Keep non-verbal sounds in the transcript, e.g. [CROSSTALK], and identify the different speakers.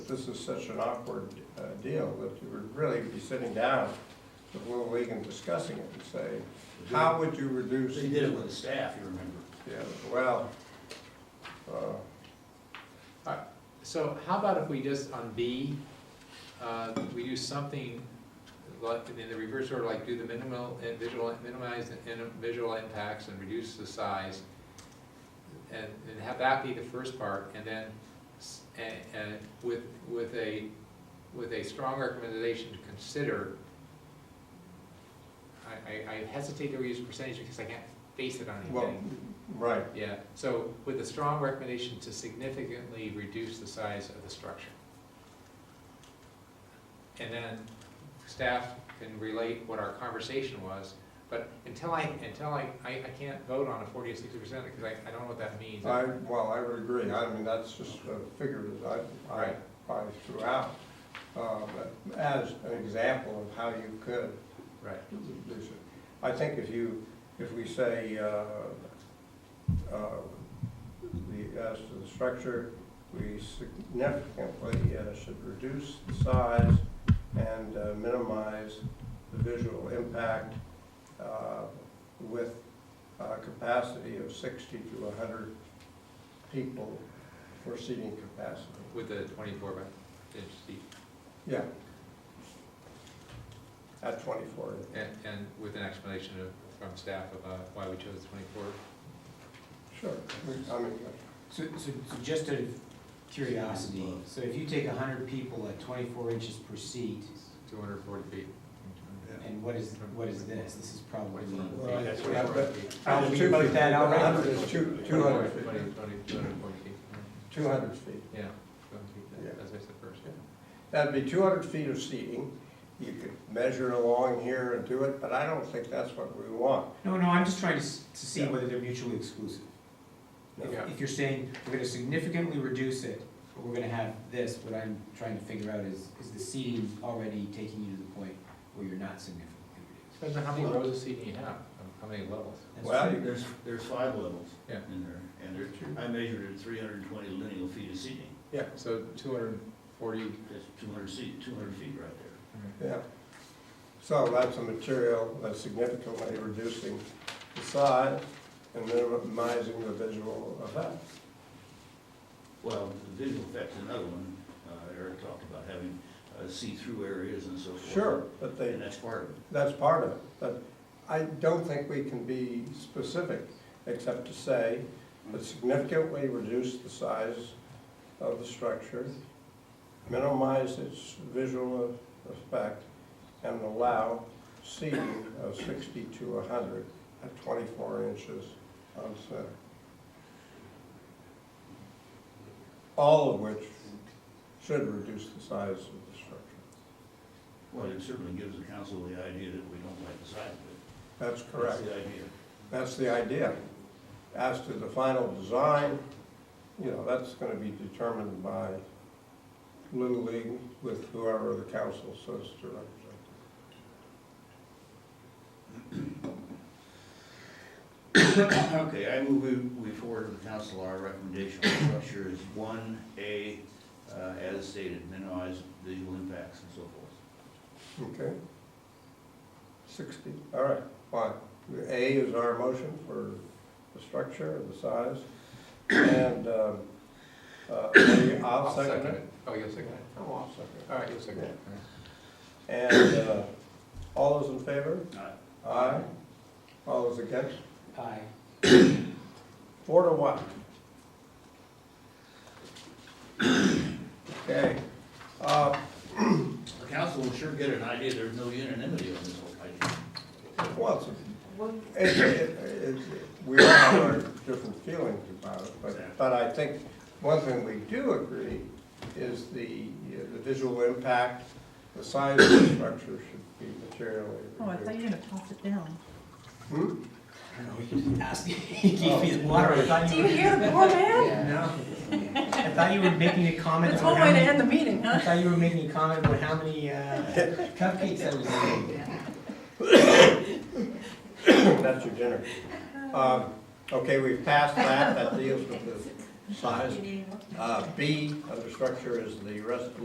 Speaker 1: this is such an awkward uh, deal that you would really be sitting down with Little League and discussing it and say, how would you reduce?
Speaker 2: They did it with the staff, you remember.
Speaker 1: Yeah, well, uh,
Speaker 3: So how about if we just, on B, uh, we do something like, in the reverse order, like do the minimal, and visual, minimize the in- visual impacts and reduce the size. And, and have that be the first part, and then, s- and, and with, with a, with a strong recommendation to consider. I, I- I hesitate to use percentage because I can't base it on anything.
Speaker 1: well, right,
Speaker 3: Yeah, so with a strong recommendation to significantly reduce the size of the structure. And then staff can relate what our conversation was, but until I, until I, I, I can't vote on a forty or sixty percent, because I, I don't know what that means.
Speaker 1: I, well, I would agree, I mean, that's just a figure that I, I, I threw out, uh, but as an example of how you could
Speaker 3: Right,
Speaker 1: reduce it. I think if you, if we say, uh, uh, the, as to the structure, we significantly uh, should reduce the size and uh, minimize the visual impact uh, with a capacity of sixty to hundred people for seating capacity.
Speaker 3: with the twenty-four by inch deep,
Speaker 1: Yeah. At twenty-four.
Speaker 3: and, and with an explanation of, from staff about why we chose twenty-four.
Speaker 1: Sure. I mean,
Speaker 4: So, so, so just out of curiosity, so if you take a hundred people at twenty-four inches per seat,
Speaker 3: Two hundred and forty feet.
Speaker 4: and what is, what is this? This is probably,
Speaker 3: Twenty-four.
Speaker 2: Well,
Speaker 3: Yeah, 24
Speaker 1: but-
Speaker 3: feet.
Speaker 4: How do we put that out right?
Speaker 1: Hundred is two, two hundred
Speaker 3: Twenty,
Speaker 1: feet,
Speaker 3: twenty, two hundred and forty feet.
Speaker 1: two hundred feet.
Speaker 3: Yeah, go and keep that,
Speaker 1: Yeah.
Speaker 3: as I said first, yeah.
Speaker 1: That'd be two hundred feet of seating. You could measure along here and do it, but I don't think that's what we want.
Speaker 4: no, no, I'm just trying to, s- to see
Speaker 1: Yeah.
Speaker 4: whether they're mutually exclusive.
Speaker 1: No.
Speaker 3: Yeah.
Speaker 4: If you're saying, we're gonna significantly reduce it, but we're gonna have this, what I'm trying to figure out is, is the seating already taking you to the point where you're not significantly reducing?
Speaker 3: Depends on how many rows of seating you have, and how many levels.
Speaker 4: That's
Speaker 1: Well,
Speaker 4: true.
Speaker 1: you-
Speaker 2: There's, there's five levels
Speaker 3: Yeah.
Speaker 2: in there, and there, I measured it three hundred and twenty lineal feet of seating.
Speaker 3: So two hundred and forty.
Speaker 2: That's two hundred seat, two hundred feet right there.
Speaker 1: yeah. So that's a material that's significantly reducing the size and minimizing the visual effect.
Speaker 2: Well, the visual effect's another one, uh, Eric talked about having, uh, see-through areas and so forth.
Speaker 1: Sure, but they,
Speaker 2: And that's part of it.
Speaker 1: That's part of it, but I don't think we can be specific, except to say that significantly reduce the size of the structure, minimize its visual effect, and allow seating of sixty to hundred at twenty-four inches on center. All of which should reduce the size of the structure.
Speaker 2: Well, it certainly gives the council the idea that we don't like the size of it.
Speaker 1: That's correct.
Speaker 2: That's the idea.
Speaker 1: That's the idea. As to the final design, you know, that's gonna be determined by Little League with whoever the council says to represent.
Speaker 2: Okay, I move we- we forward to the council our recommendation on structure is one, A, uh, as stated, minimize visual impacts and so forth.
Speaker 1: Okay? Sixty, all right, fine. A is our motion for the structure and the size, and, um, uh, I'll second it.
Speaker 3: Oh, you'll second it,
Speaker 1: Oh, I'll second
Speaker 3: all right, you'll second it. All
Speaker 1: it.
Speaker 3: right.
Speaker 1: And, uh, all those in favor?
Speaker 2: Aye.
Speaker 1: Aye. All those against?
Speaker 4: Aye.
Speaker 1: Four to one. Okay, uh,
Speaker 2: The council will sure get an idea, there's no unanimity on this whole idea.
Speaker 1: well, it's, it, it, it, we all have our different feelings about it, but, but I think one thing we do agree is the, the visual impact, the size of the structure should be materially
Speaker 5: Oh, I thought
Speaker 1: reduced.
Speaker 5: you were gonna toss it down.
Speaker 1: Hmm?
Speaker 4: I don't know, he didn't ask [LAUGHS] me, he gave me the water. I thought
Speaker 5: Do
Speaker 4: [LAUGHS]
Speaker 5: Oh, you hear the poor man?
Speaker 4: No. I thought you were making a comment.
Speaker 5: That's
Speaker 4: on
Speaker 5: one
Speaker 4: how
Speaker 5: way to
Speaker 4: many-
Speaker 5: end the meeting,
Speaker 4: I
Speaker 5: huh?
Speaker 4: thought you were making a comment about how many uh, cupcakes I was eating.
Speaker 1: [COUGHS] That's your dinner. Um, okay, we've passed that, that deals with the size. Uh, B, under structure is the rest of